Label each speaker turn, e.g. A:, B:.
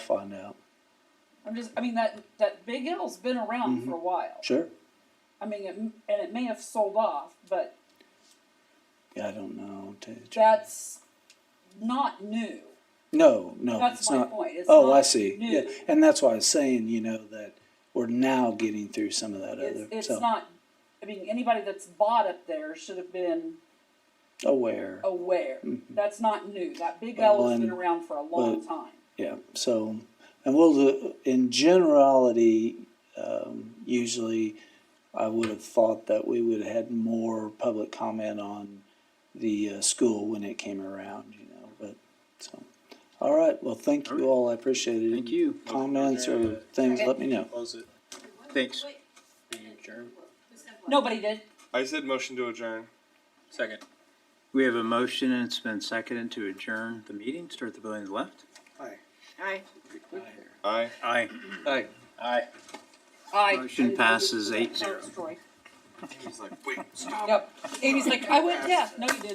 A: find out.
B: I'm just, I mean, that, that Big L's been around for a while.
A: Sure.
B: I mean, it, and it may have sold off, but
A: Yeah, I don't know. to- to-
B: that's not new.
A: no, no,
B: That's
A: it's
B: my
A: not.
B: point. It's
A: oh,
B: not
A: I see.
B: New.
A: Yeah, and that's why I was saying, you know, that we're now getting through some of that
B: It's,
A: other.
B: it's
A: so
B: not, I mean, anybody that's bought up there should have been
A: aware.
B: aware. That's not new. That Big L has been
A: Well, and-
B: around for a long time.
A: Yeah. So, and we'll do, in generality, um, usually, I would have thought that we would have had more public comment on the uh, school when it came around, you know. But so, all right. Well, thank you all. I appreciate it.
C: Thank you.
A: Comments or things, let me know.
D: Close it.
C: Thanks.
B: Nobody did.
E: I said motion to adjourn.
D: Second.
C: We have a motion and it's been seconded to adjourn the meeting. Start the building to the left.
F: Aye.
E: Aye.
C: Aye.
D: Aye. Aye.
B: I
C: Motion passes eight zero.
B: Yep. Amy's like, I went deaf. No, you didn't.